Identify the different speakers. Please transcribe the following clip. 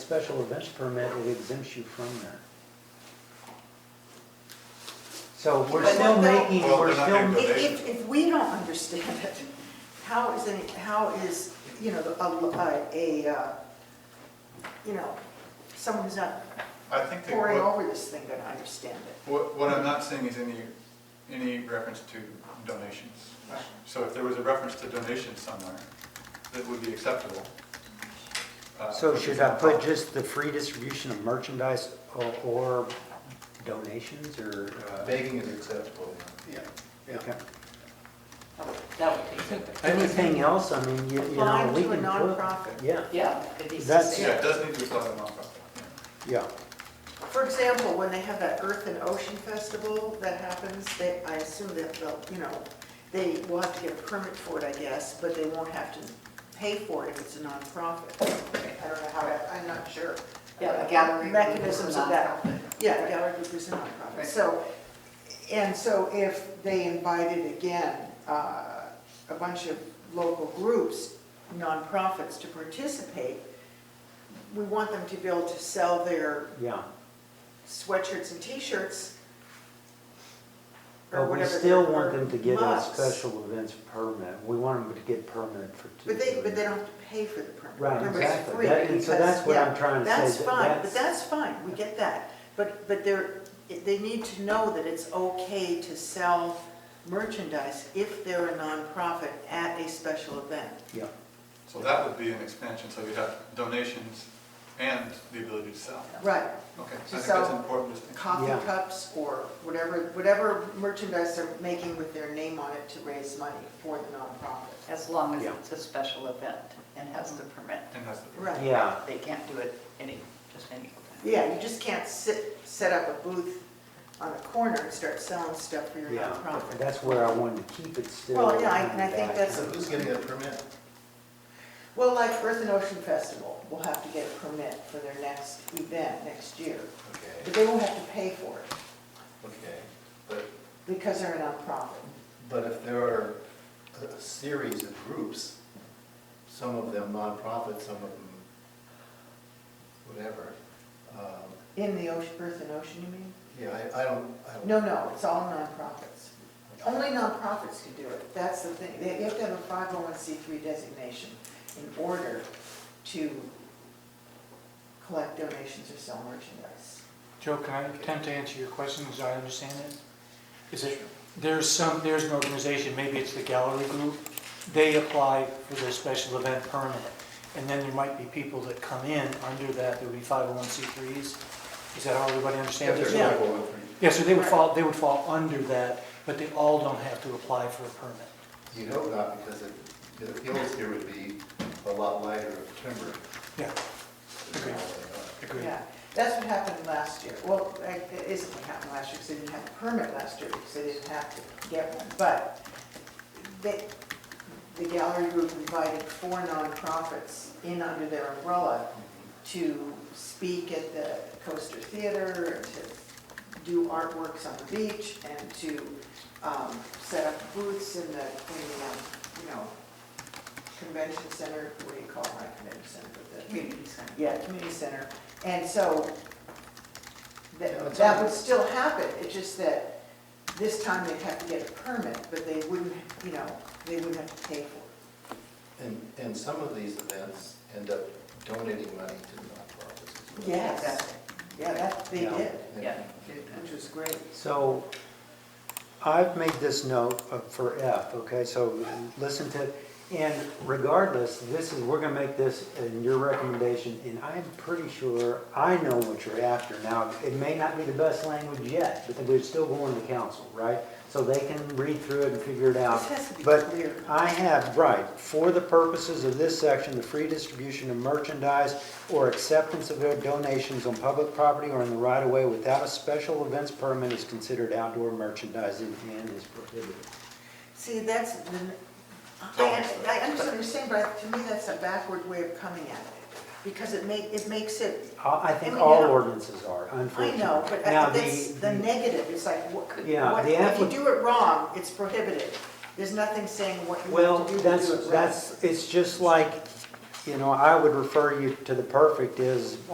Speaker 1: special events permit, it exempts you from that. So we're
Speaker 2: But
Speaker 1: still
Speaker 2: no, no.
Speaker 1: making,
Speaker 3: Well,
Speaker 1: we're
Speaker 3: they're not gonna
Speaker 1: still,
Speaker 3: do-
Speaker 2: If, if- if we don't understand it, how is any, how is, you know, a, a, uh, you know, someone who's not
Speaker 3: I think that
Speaker 2: pouring
Speaker 3: what,
Speaker 2: over this thing gonna understand it?
Speaker 3: what- what I'm not seeing is any, any reference to donations. So if there was a reference to donations somewhere, that would be acceptable. uh,
Speaker 1: so
Speaker 3: which is
Speaker 1: should I
Speaker 3: not
Speaker 1: put
Speaker 3: possible.
Speaker 1: just the free distribution of merchandise o- or donations or? uh,
Speaker 4: Begging is acceptable. Yeah.
Speaker 1: okay.
Speaker 5: That would be good.
Speaker 1: Anything else, I mean, you, you know,
Speaker 2: Applying
Speaker 1: we
Speaker 2: to a
Speaker 1: can put.
Speaker 2: nonprofit.
Speaker 1: Yeah,
Speaker 5: Yeah. it needs to
Speaker 1: That's-
Speaker 5: say
Speaker 3: Yeah, it
Speaker 5: that.
Speaker 3: does need to be thought of nonprofit.
Speaker 1: yeah,
Speaker 2: For example, when they have that Earth and Ocean Festival that happens, they, I assume that they'll, you know, they will have to get a permit for it, I guess, but they won't have to pay for it if it's a nonprofit. I don't know how, to- I'm not sure. Uh,
Speaker 5: Yeah, a gallery group
Speaker 2: Mechanisms
Speaker 5: or
Speaker 2: of that.
Speaker 5: nonprofit.
Speaker 2: Yeah, a gallery group is a nonprofit.
Speaker 5: Right.
Speaker 2: So, and so if they invited again, uh, a bunch of local groups, nonprofits to participate, we want them to be able to sell their
Speaker 1: yeah.
Speaker 2: sweatshirts and t-shirts. or
Speaker 1: But we
Speaker 2: whatever
Speaker 1: still
Speaker 2: they're-
Speaker 1: want them to get a
Speaker 2: mugs.
Speaker 1: special events permit. We want them to get permit for two.
Speaker 2: But they, but they don't have to pay for the permit.
Speaker 1: Right,
Speaker 2: Remember, it's
Speaker 1: exactly.
Speaker 2: free
Speaker 1: That- And so
Speaker 2: because-
Speaker 1: that's what I'm
Speaker 2: yeah,
Speaker 1: trying to say.
Speaker 2: That's
Speaker 1: that
Speaker 2: fine, but that's fine, we get that. But, but they're, they need to know that it's okay to sell merchandise if they're a nonprofit at a special event.
Speaker 1: Yeah,
Speaker 3: So that would be an expansion, so you'd have donations and the ability to sell.
Speaker 2: Right.
Speaker 3: Okay, I
Speaker 2: To
Speaker 3: think that's
Speaker 2: sell
Speaker 3: an important distinction.
Speaker 1: Yeah.
Speaker 2: Coffee cups or whatever, whatever merchandise they're making with their name on it to raise money for the nonprofit.
Speaker 5: As long as
Speaker 1: Yeah.
Speaker 5: it's a special event and has the permit.
Speaker 3: And that's the.
Speaker 2: Right.
Speaker 1: yeah.
Speaker 5: They can't do it any, just any old time.
Speaker 2: Yeah, you just can't sit, set up a booth on a corner and start selling stuff for your
Speaker 1: Yeah, but
Speaker 2: nonprofit.
Speaker 1: that's where I wanted to keep it still.
Speaker 2: Well, yeah, I- and I think
Speaker 1: back.
Speaker 2: that's-
Speaker 4: So who's getting that permit?
Speaker 2: Well, like Earth and Ocean Festival will have to get a permit for their next event next year, but
Speaker 4: Okay,
Speaker 2: they won't have to pay for it
Speaker 4: okay. But,
Speaker 2: because they're a nonprofit.
Speaker 4: but if there are a series of groups, some of them nonprofit, some of them whatever, um,
Speaker 2: In the ocean, Earth and Ocean, you mean?
Speaker 4: yeah, I, I don't, I don't.
Speaker 2: No, no, it's all nonprofits. Only nonprofits can do it, that's the thing. They you have to have a 501c3 designation in order to collect donations or sell merchandise.
Speaker 6: Joe, can I attempt to answer your question as I understand it? Is it, there's some, there's an organization, maybe it's the gallery group, they apply for their special event permit. And then there might be people that come in under that, there would be 501c3s. Is that how everybody
Speaker 4: If
Speaker 6: understands
Speaker 4: there's
Speaker 6: it?
Speaker 2: Yeah.
Speaker 4: people with-
Speaker 6: Yeah, so they would fall, they would fall under that, but they all don't have to apply for a permit.
Speaker 4: You hope not, because it- the appeals here would be a lot lighter of timber.
Speaker 6: Yeah.
Speaker 4: than
Speaker 6: Okay.
Speaker 4: all they are.
Speaker 6: Agreed.
Speaker 2: Yeah, that's what happened last year. Well, I- it isn't what happened last year, because they didn't have a permit last year, because they didn't have to get one. But they, the gallery group invited four nonprofits in under their umbrella to speak at the Coaster Theater, and to do artworks on the beach, and to um, set up booths in the, in the, um, you know, convention center, what do you call it, not convention center, but the
Speaker 5: Community center.
Speaker 2: yeah, community center. And so
Speaker 4: Yeah,
Speaker 2: that,
Speaker 4: it's
Speaker 2: that
Speaker 4: on.
Speaker 2: would still happen, it's just that this time they'd have to get a permit, but they wouldn't, you know, they wouldn't have to pay for it.
Speaker 4: And, and some of these events end up donating money to nonprofits. as well.
Speaker 2: Yes, yeah, that, they
Speaker 1: Yeah.
Speaker 2: did,
Speaker 5: Yeah.
Speaker 2: which was great.
Speaker 1: So I've made this note of- for F, okay, so listen to, and regardless, this is, we're gonna make this in your recommendation, and I'm pretty sure I know what you're after. Now, it may not be the best language yet, but we're still going to council, right? So they can read through it and figure it out.
Speaker 2: This has to be
Speaker 1: But
Speaker 2: clear.
Speaker 1: I have, right, for the purposes of this section, the free distribution of merchandise or acceptance of donations on public property or in the right of way without a special events permit is considered outdoor merchandising and is prohibited.
Speaker 2: See, that's, the- I,
Speaker 3: Don't.
Speaker 2: I understand what you're saying, but to me, that's a backward way of coming at it, because it make, it makes it,
Speaker 1: I I think
Speaker 2: I mean,
Speaker 1: all
Speaker 2: yeah.
Speaker 1: ordinances are,
Speaker 2: I
Speaker 1: unfortunately.
Speaker 2: know, but
Speaker 1: Now,
Speaker 2: I- that's
Speaker 1: the-
Speaker 2: the negative, it's like, what could,
Speaker 1: Yeah,
Speaker 2: what-
Speaker 1: the
Speaker 2: if you
Speaker 1: appli-
Speaker 2: do it wrong, it's prohibited. There's nothing saying what you
Speaker 1: Well,
Speaker 2: have to do to do it
Speaker 1: that's,
Speaker 2: right.
Speaker 1: that's, it's just like, you know, I would refer you to the perfect is